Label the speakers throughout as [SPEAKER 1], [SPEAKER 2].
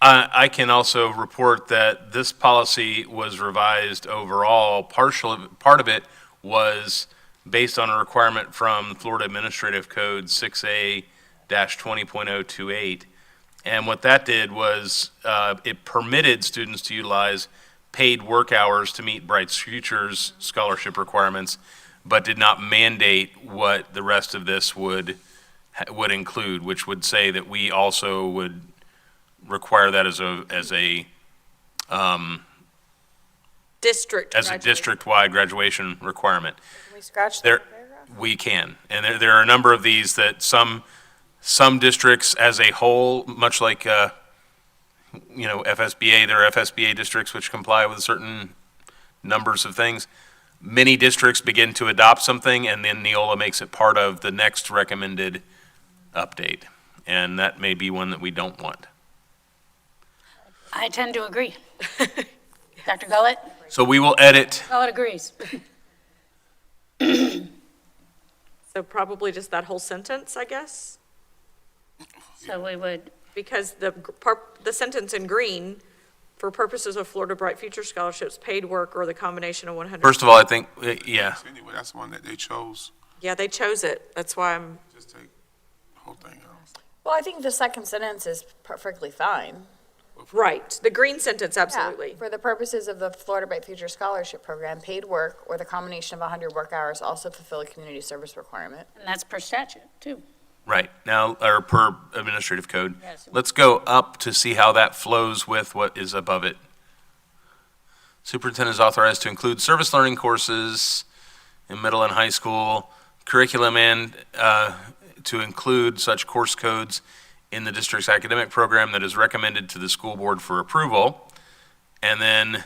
[SPEAKER 1] I, I can also report that this policy was revised overall. Partial, part of it was based on a requirement from Florida Administrative Code 6A-20.028. And what that did was uh, it permitted students to utilize paid work hours to meet Bright Futures scholarship requirements, but did not mandate what the rest of this would, would include, which would say that we also would require that as a, as a,
[SPEAKER 2] District.
[SPEAKER 1] as a
[SPEAKER 2] graduate.
[SPEAKER 1] district-wide graduation requirement.
[SPEAKER 3] we scratch
[SPEAKER 1] There,
[SPEAKER 3] that paragraph?
[SPEAKER 1] we can, and there, there are a number of these that some, some districts as a whole, much like, uh, you know, FSBA, there are FSBA districts which comply with certain numbers of things. Many districts begin to adopt something, and then Neola makes it part of the next recommended update. And that may be one that we don't want.
[SPEAKER 4] I tend to agree. Dr. Gullett?
[SPEAKER 1] So we will edit
[SPEAKER 4] Gullett agrees.
[SPEAKER 2] So probably just that whole sentence, I guess,
[SPEAKER 4] So we would,
[SPEAKER 2] because the, gr- par- the sentence in green, for purposes of Florida Bright Future Scholarships, paid work or the combination of 100.
[SPEAKER 1] First of all, I think, uh, yeah,
[SPEAKER 5] Anyway, that's the one that they chose.
[SPEAKER 2] Yeah, they chose it. That's why I'm,
[SPEAKER 5] Just take the whole thing out.
[SPEAKER 3] Well, I think the second sentence is perfectly fine.
[SPEAKER 2] right, the green sentence, absolutely.
[SPEAKER 3] For the purposes of the Florida Bright Future Scholarship Program, paid work or the combination of 100 work hours also fulfill a community service requirement.
[SPEAKER 4] and that's per statute, too.
[SPEAKER 1] right, now, or per administrative code.
[SPEAKER 4] Yes.
[SPEAKER 1] Let's go up to see how that flows with what is above it. Superintendent is authorized to include service learning courses in middle and high school curriculum and uh, to include such course codes in the district's academic program that is recommended to the school board for approval. And then,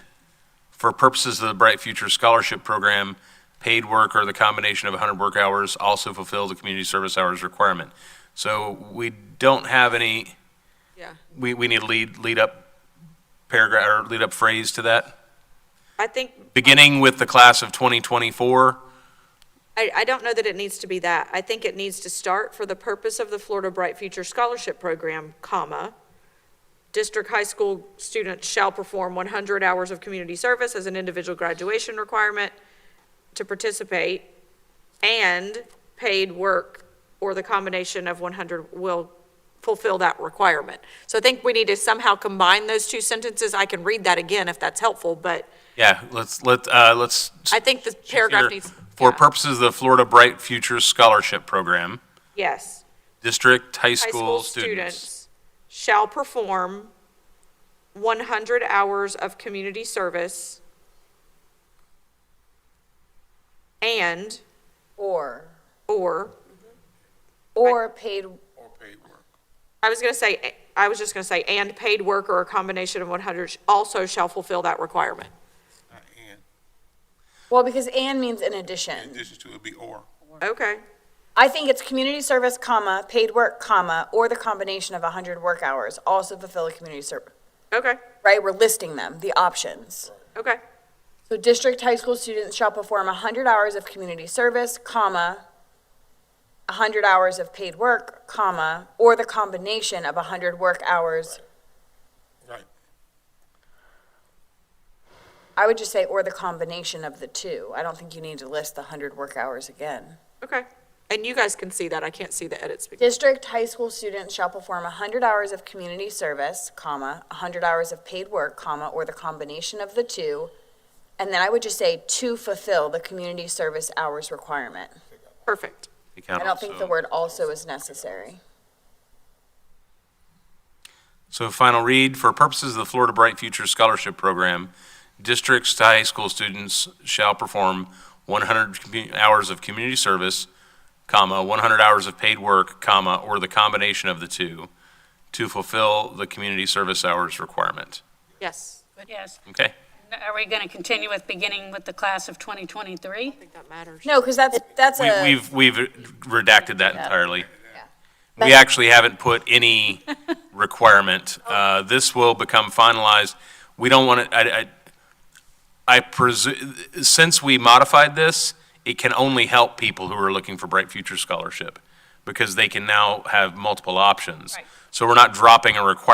[SPEAKER 1] for purposes of the Bright Future Scholarship Program, paid work or the combination of 100 work hours also fulfills the community service hours requirement. So we don't have any,
[SPEAKER 2] Yeah.
[SPEAKER 1] we, we need a lead, lead up paragraph, or lead up phrase to that,
[SPEAKER 2] I think,
[SPEAKER 1] beginning with the class of 2024.
[SPEAKER 2] I, I don't know that it needs to be that. I think it needs to start for the purpose of the Florida Bright Future Scholarship Program, comma, district high school students shall perform 100 hours of community service as an individual graduation requirement to participate, and paid work or the combination of 100 will fulfill that requirement. So I think we need to somehow combine those two sentences. I can read that again if that's helpful, but
[SPEAKER 1] Yeah, let's, let, uh, let's.
[SPEAKER 2] I think the paragraph
[SPEAKER 1] here,
[SPEAKER 2] needs.
[SPEAKER 1] For
[SPEAKER 2] yeah.
[SPEAKER 1] purposes of the Florida Bright Futures Scholarship Program,
[SPEAKER 2] Yes.
[SPEAKER 1] district high
[SPEAKER 2] high school students shall perform 100 hours of community service and,
[SPEAKER 3] Or,
[SPEAKER 2] or,
[SPEAKER 3] or paid,
[SPEAKER 5] Or paid work.
[SPEAKER 2] I was going to say, I was just going to say, and paid work or a combination of 100 also shall fulfill that requirement.
[SPEAKER 5] Not and.
[SPEAKER 3] well, because and means in
[SPEAKER 5] In
[SPEAKER 3] addition.
[SPEAKER 5] addition to, it'd be or.
[SPEAKER 2] Okay,
[SPEAKER 3] I think it's community service, comma, paid work, comma, or the combination of 100 work hours also fulfill a community service,
[SPEAKER 2] okay,
[SPEAKER 3] right? We're listing them, the options.
[SPEAKER 2] okay,
[SPEAKER 3] So district high school students shall perform 100 hours of community service, comma, 100 hours of paid work, comma, or the combination of 100 work hours.
[SPEAKER 5] Right.
[SPEAKER 3] I would just say, or the combination of the two. I don't think you need to list the 100 work hours again.
[SPEAKER 2] okay. And you guys can see that. I can't see the edits. because-
[SPEAKER 3] District high school students shall perform 100 hours of community service, comma, 100 hours of paid work, comma, or the combination of the two. And then I would just say, to fulfill the community service hours requirement.
[SPEAKER 2] Perfect.
[SPEAKER 3] I don't think the word also is necessary.
[SPEAKER 1] So final read, for purposes of the Florida Bright Future Scholarship Program, districts to high school students shall perform 100 commu- hours of community service, comma, 100 hours of paid work, comma, or the combination of the two to fulfill the community service hours requirement.
[SPEAKER 2] Yes.
[SPEAKER 4] But yes,
[SPEAKER 1] Okay?
[SPEAKER 4] are we going to continue with beginning with the class of 2023?
[SPEAKER 2] I think that matters.
[SPEAKER 3] No, because that's, that's
[SPEAKER 1] We-
[SPEAKER 3] a,
[SPEAKER 1] We've, we've redacted that entirely.
[SPEAKER 3] Yeah.
[SPEAKER 1] We actually haven't put any requirement.
[SPEAKER 3] Oh.
[SPEAKER 1] Uh, This will become finalized. We don't want to, I, I, I presume, since we modified this, it can only help people who are looking for Bright Future Scholarship because they can now have multiple options.
[SPEAKER 4] Right.
[SPEAKER 1] So we're not dropping a requirement